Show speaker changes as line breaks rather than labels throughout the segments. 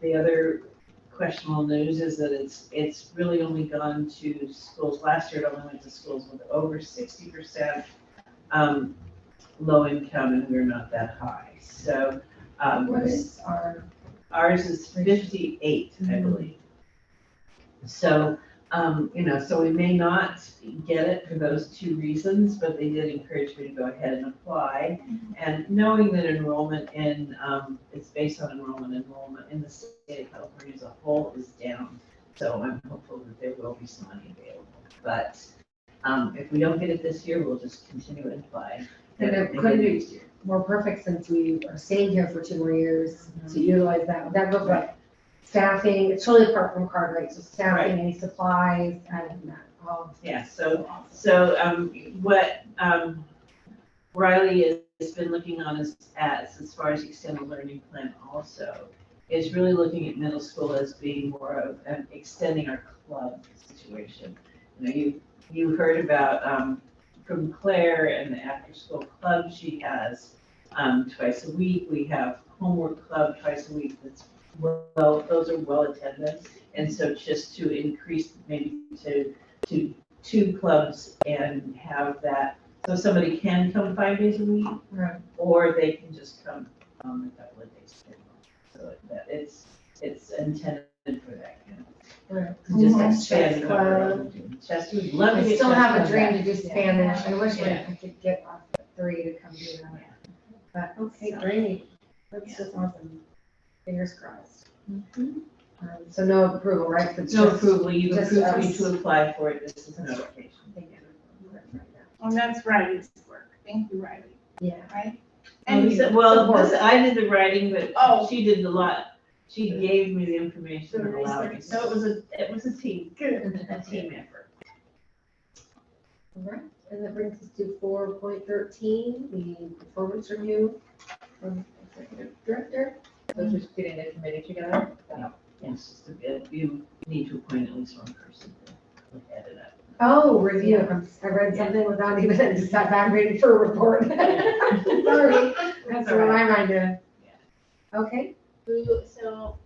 the other questionable news is that it's, it's really only gone to schools, last year it only went to schools with over sixty percent um, low income, and we're not that high, so, um,
What is our,
ours is fifty-eight, I
Mhm.
believe. So, um, you know, so we may not get it for those two reasons, but they did encourage me to go ahead and apply. And knowing that enrollment in, um, it's based on enrollment, enrollment in the state of California as a whole is down. So I'm hopeful that there will be some money available, but, um, if we don't get it this year, we'll just continue and apply.
and it couldn't be more perfect since we are staying here for two more years
Mm-hmm.
to utilize that, that goes like staffing, it's totally apart from card rates, so staffing, any supplies, and that, all.
Yeah, so So um, what um, Riley has- has been looking on as, as, as far as extended learning plan also, is really looking at middle school as being more of an extending our club situation. You know, you, you heard about um, from Claire and the after-school club she has um, twice a week. We have homework club twice a week that's well, those are well attended. And so just to increase, maybe to, to two clubs and have that, so somebody can come five days a week,
Right.
or they can just come um, a couple of days. a month. So that it's, it's intended for that kind of.
Right.
to Just
Mhm.
expand what we're
Club.
doing. Chester, we'd love to
I
get
still have a
Chester
dream
back.
to do
Yeah.
Spanish, I wish we-
Yeah.
I could get off at three to come do that. But, okay, great, that's just awesome, fingers crossed. Um, So no approval, right? So it's
Mm-hmm. No
just-
approval, you
just
approved me
us.
to apply for it, this is notification.
I think I'm right now.
Well, Oh, that's Riley's work. Thank you, Riley.
Yeah,
Um,
And
so-
you.
Well,
Support.
this- I did the writing,
Oh.
but she did a lot, she gave me the information and
The
allowed me,
research.
so it was a, it was a team,
Good.
a team effort.
all right, and that brings us to four point thirteen, the performance review from executive director.
So just getting the committee together?
Yes, just a bit. you need to appoint at least one person to look at it up.
Oh, review, I'm- I read something without even, just sat back reading for a report. Sorry, that's
all
what my mind did. Okay,
Who, so,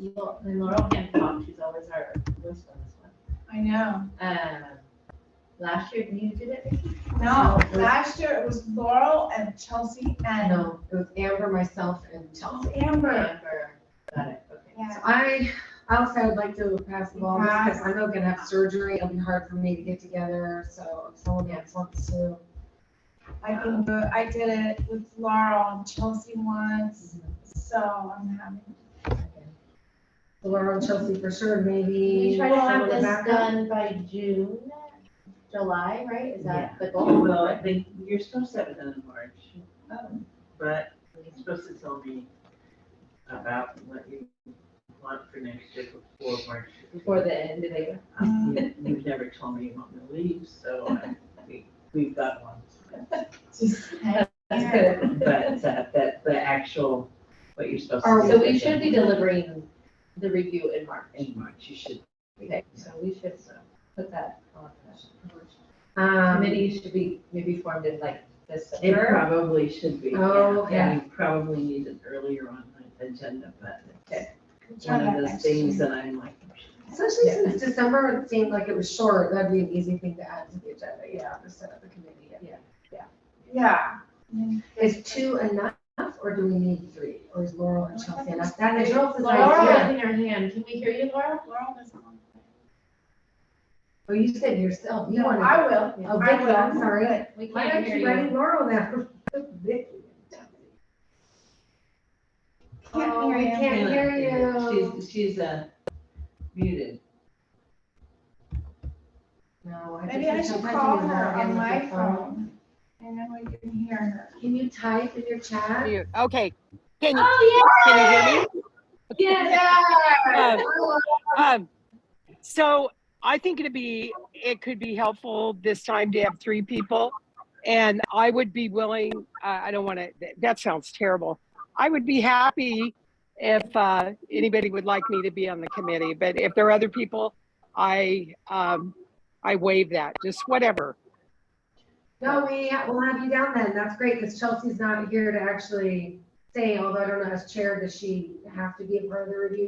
you, Laurel can talk, she's always our most on this one.
I know.
Um, last year, you did it? Vicky?
No, last year it was Laurel and Chelsea and
no, it was Amber, myself, and Chelsea.
Amber.
Amber, got it, okay.
Yeah.
So I, also I'd like to pass the ball, because I know I'm gonna have surgery, it'll be hard for me to get together, so if someone else wants to.
I can do it. I did it with Laurel and Chelsea once,
Mm-hmm.
so I'm having.
Laura and Chelsea for sure, maybe.
We try to
someone
have this
back up.
done by June, July, right? Is that the goal?
Well, I think you're supposed to have it done in March,
um,
but you're supposed to tell me about what you want for next year before March.
Before the end of the year?
Um, you- You've never told me you want me to leave, so uh, we, we've got one.
Just-
Yeah.
That's good.
But uh, that, the actual, what you're supposed to
Are
do.
So we should be delivering the review in March.
In March, you should. be.
Okay, so we should uh, put that on the
Um,
committee should be maybe formed in like
It
December.
probably should be. yeah.
Oh, okay.
And you probably need it earlier on the agenda, but
Okay.
it's one of those things that I'm like. "Oh,
Especially since December, it seemed like it was short, that'd be an easy thing to add to the agenda, yeah, to set up the committee.
Yeah.
Is two enough, or do we need three, or is Laurel and Chelsea enough? That is
Laurel-
Cheryl's
Laura
idea.
raising her hand. Can we hear you, Laura?
Laurel doesn't want to.
Well, you said yourself, you
No,
wanted.
I will.
Oh,
I
Vicky,
will.
I'm sorry.
We
Why
can't
don't
hear
you
you.
write Laurel down? Vicky.
Can't
Oh, we
hear you.
Can't hear you.
She's, she's uh, muted.
No, I think
Maybe I
it's-
should
might be
call
Laurel
her
again
on
with
my
the
phone. And then we can hear her.
Can you type in your chat?
Mute. Okay. Can you,
Oh,
can you hear me? Um,
Laurel,
um, so I think it'd be, it could be helpful this time to have three people. And I would be willing, uh, I don't want to, that sounds terrible. I would be happy if uh, anybody would like me to be on the committee, but if there are other people, I, um, I waive that, just whatever.
No, we, we'll have you down then, that's great, because Chelsea's not here to actually say, although I don't know, as chair, does she have to be a part of the review